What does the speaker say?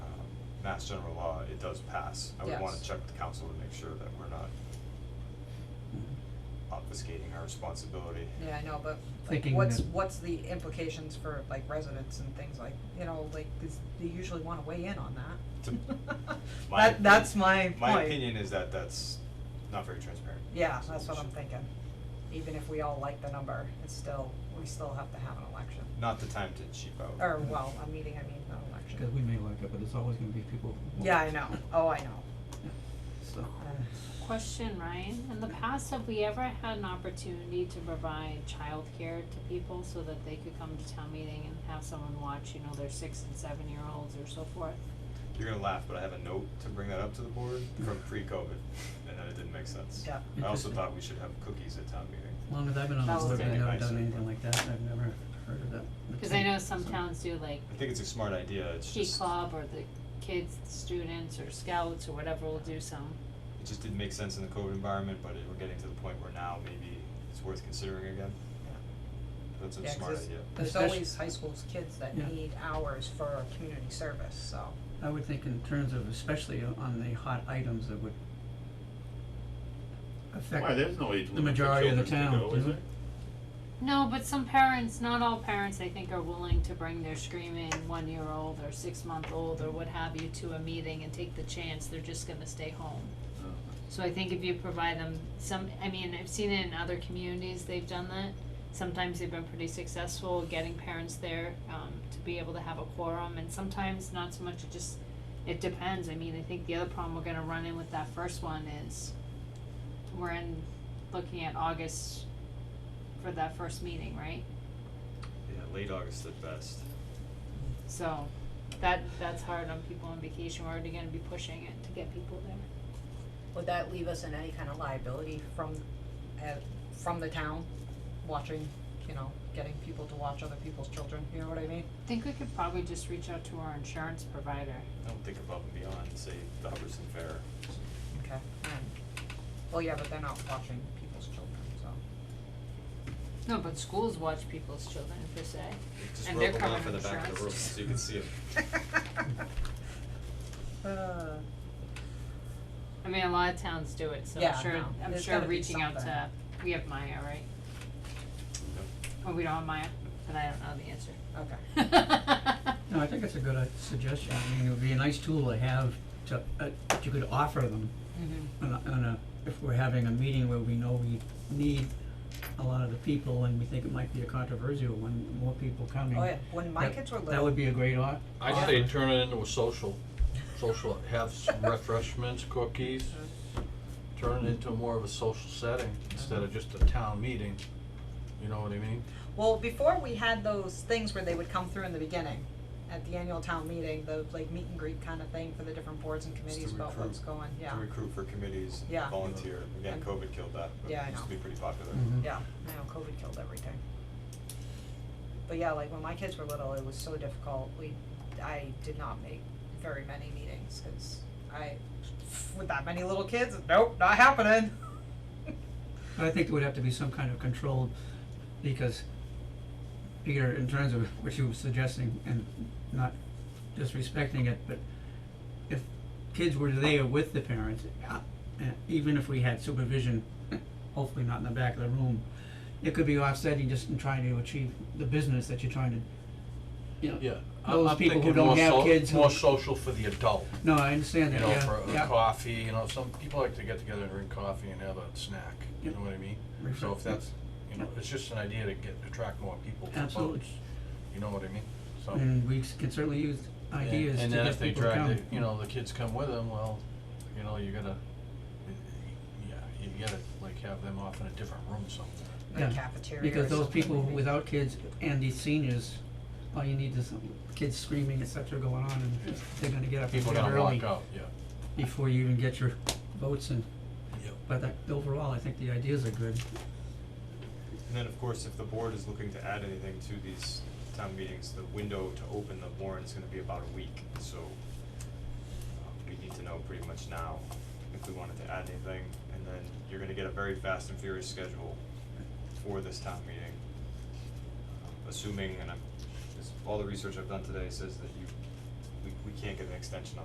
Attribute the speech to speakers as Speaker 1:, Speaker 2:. Speaker 1: Um, Mass General Law, it does pass. I would wanna
Speaker 2: Yes.
Speaker 1: check the council to make sure that we're not obfuscating our responsibility.
Speaker 2: Yeah, I know, but like
Speaker 3: Thinking
Speaker 2: what's
Speaker 3: that-
Speaker 2: what's the implications for like residents and things like, you know, like is, they usually wanna weigh in on
Speaker 1: To
Speaker 2: that.
Speaker 1: my
Speaker 2: That, that's
Speaker 1: opinion-
Speaker 2: my point.
Speaker 1: My opinion is that that's not very transparent.
Speaker 2: Yeah,
Speaker 1: So
Speaker 2: that's
Speaker 1: we
Speaker 2: what I'm
Speaker 1: should-
Speaker 2: thinking. Even if we all like the number, it's still, we still have to have an election.
Speaker 1: Not the time to cheap out.
Speaker 2: Or, well, a meeting, I mean, not an election.
Speaker 3: Because we may like it, but there's always gonna be people who
Speaker 2: Yeah, I
Speaker 3: won't.
Speaker 2: know. Oh, I know.
Speaker 3: So,
Speaker 2: Uh,
Speaker 4: Question, Ryan, in the past, have we ever had an opportunity to provide childcare to people so that they could come to town meeting and have someone watch, you know, their six and seven year olds or so forth?
Speaker 1: You're gonna laugh, but I have a note to bring that up to the board from pre-COVID, and that it didn't make sense.
Speaker 2: Yeah.
Speaker 1: I also
Speaker 3: Interesting.
Speaker 1: thought we should have cookies at town meeting.
Speaker 3: as long as I've been on
Speaker 2: That
Speaker 3: this
Speaker 2: was
Speaker 3: board, I've
Speaker 2: good.
Speaker 3: never done
Speaker 1: Nice.
Speaker 3: anything like that, I've never heard of that. The
Speaker 4: Cause I
Speaker 3: tape,
Speaker 4: know some
Speaker 3: so-
Speaker 4: towns do like
Speaker 1: I think it's a smart idea, it's
Speaker 4: Key
Speaker 1: just,
Speaker 4: Club or the kids, students or scouts or whatever will do some.
Speaker 1: it just didn't make sense in the COVID environment, but it- we're getting to the point where now maybe it's worth considering again. That's a
Speaker 2: Yeah, 'cause
Speaker 1: smart
Speaker 2: it's-
Speaker 1: idea.
Speaker 2: There's
Speaker 3: Especially-
Speaker 2: always high school's kids that
Speaker 3: Yeah.
Speaker 2: need hours for community service, so.
Speaker 3: I would think in terms of especially on the hot items that would affect.
Speaker 5: Why, there's no age
Speaker 3: the
Speaker 5: limit for
Speaker 3: majority of the
Speaker 5: children to
Speaker 3: town,
Speaker 5: go, is
Speaker 3: isn't
Speaker 5: there?
Speaker 3: it?
Speaker 4: No, but some parents, not all parents, I think, are willing to bring their screaming one year old or six month old or what have you to a meeting and take the chance, they're just gonna stay home.
Speaker 5: Oh.
Speaker 4: So I think if you provide them some, I mean, I've seen it in other communities, they've done that. Sometimes they've been pretty successful getting parents there, um, to be able to have a quorum, and sometimes not so much, it just, it depends, I mean, I think the other problem we're gonna run in with that first one is we're in, looking at August for that first meeting, right?
Speaker 1: Yeah, late August at best.
Speaker 4: So, that, that's hard on people on vacation, we're already gonna be pushing it to get people there.
Speaker 2: Would that leave us in any kind of liability from, uh, from the town, watching, you know, getting people to watch other people's children, you know what I mean?
Speaker 4: I think we could probably just reach out to our insurance provider.
Speaker 1: I don't think above and beyond, say, the Hubbardson Fair.
Speaker 2: Okay. And, well, yeah, but they're not watching people's children, so.
Speaker 4: No, but schools watch people's children per se.
Speaker 1: Just
Speaker 4: And
Speaker 1: rope
Speaker 4: they're
Speaker 1: them off in
Speaker 4: covering
Speaker 1: the back of the room
Speaker 4: insurance.
Speaker 1: so you can see them.
Speaker 2: Uh,
Speaker 4: I mean, a lot of towns do it, so
Speaker 2: Yeah,
Speaker 4: I'm sure,
Speaker 2: no,
Speaker 4: I'm
Speaker 2: there's
Speaker 4: sure
Speaker 2: gotta be
Speaker 4: reaching out to,
Speaker 2: something.
Speaker 4: we have Maya, right? Or we don't have Maya, but I don't know the answer.
Speaker 2: okay.
Speaker 3: No, I think it's a good uh, suggestion, I mean, it would be a nice tool to have to, uh, that you could offer them
Speaker 2: Mm-hmm.
Speaker 3: on a, on a, if we're having a meeting where we know we need a lot of the people and we think it might be a controversial one, more people coming.
Speaker 2: Oh, yeah, when my
Speaker 3: that-
Speaker 2: kids were
Speaker 3: That
Speaker 2: little,
Speaker 3: would be a great o-
Speaker 6: I
Speaker 3: offer.
Speaker 6: say turn it into a social, social, have some refreshments, cookies, turn it into more of a social setting instead of just a town meeting, you know what I mean?
Speaker 2: well, before we had those things where they would come through in the beginning, at the annual town meeting, the like meet and greet kind of thing for the different boards and
Speaker 1: Just to
Speaker 2: committees about what's
Speaker 1: recruit-
Speaker 2: going, yeah,
Speaker 1: To recruit for committees,
Speaker 2: Yeah.
Speaker 1: and volunteer, again,
Speaker 2: And-
Speaker 1: COVID killed that, but
Speaker 2: Yeah, I
Speaker 1: it used to
Speaker 2: know.
Speaker 1: be pretty popular.
Speaker 3: Mhm.
Speaker 2: yeah, I know, COVID killed everything. But yeah, like when my kids were little, it was so difficult, we, I did not make very many meetings, cause I, with that many little kids, nope, not happening.
Speaker 3: But I think there would have to be some kind of control, because Peter, in terms of what you were suggesting, and not disrespecting it, but if kids were there with the parents, uh, uh, even if we had supervision, hopefully not in the back of the room, it could be offsetting just in trying to achieve the business that you're trying to, you know.
Speaker 6: Yeah. I-
Speaker 3: Those
Speaker 6: I'm
Speaker 3: people who
Speaker 6: thinking
Speaker 3: don't
Speaker 6: more
Speaker 3: have
Speaker 6: so-
Speaker 3: kids who-
Speaker 6: More social for the adult,
Speaker 3: No, I understand
Speaker 6: you
Speaker 3: that,
Speaker 6: know,
Speaker 3: yeah,
Speaker 6: for a
Speaker 3: yeah.
Speaker 6: coffee, you know, some people like to get together and drink coffee and have a snack, you
Speaker 3: Yeah.
Speaker 6: know what I mean? So
Speaker 3: Refresh-
Speaker 6: if that's, you know, it's just an idea to get, attract more people to
Speaker 3: Absolutely. Mm-hmm.
Speaker 6: votes, you know what I mean? So.
Speaker 3: And we s- can certainly use
Speaker 6: And-
Speaker 3: ideas to
Speaker 6: And then
Speaker 3: get
Speaker 6: if they
Speaker 3: people to come.
Speaker 6: drag the, you know, the kids come with them, well, you know, you gotta, yeah, you gotta like have them off in a different room somewhere.
Speaker 2: The
Speaker 3: Yeah,
Speaker 2: cafeteria or
Speaker 3: Because those
Speaker 2: something
Speaker 3: people
Speaker 2: maybe.
Speaker 3: without kids and these seniors, all you need is kids screaming, et cetera, going on, and they're gonna get up and
Speaker 6: People
Speaker 3: leave
Speaker 6: gonna walk
Speaker 3: early
Speaker 6: out, yeah.
Speaker 3: before you even get your votes and,
Speaker 6: Yep.
Speaker 3: but that, overall, I think the ideas are good.
Speaker 1: And then, of course, if the board is looking to add anything to these town meetings, the window to open the warrant is gonna be about a week, so uh, we need to know pretty much now if we wanted to add anything, and then you're gonna get a very fast and furious schedule for this town meeting. Uh, Assuming, and I'm, this, all the research I've done today says that you, we, we can't get an extension on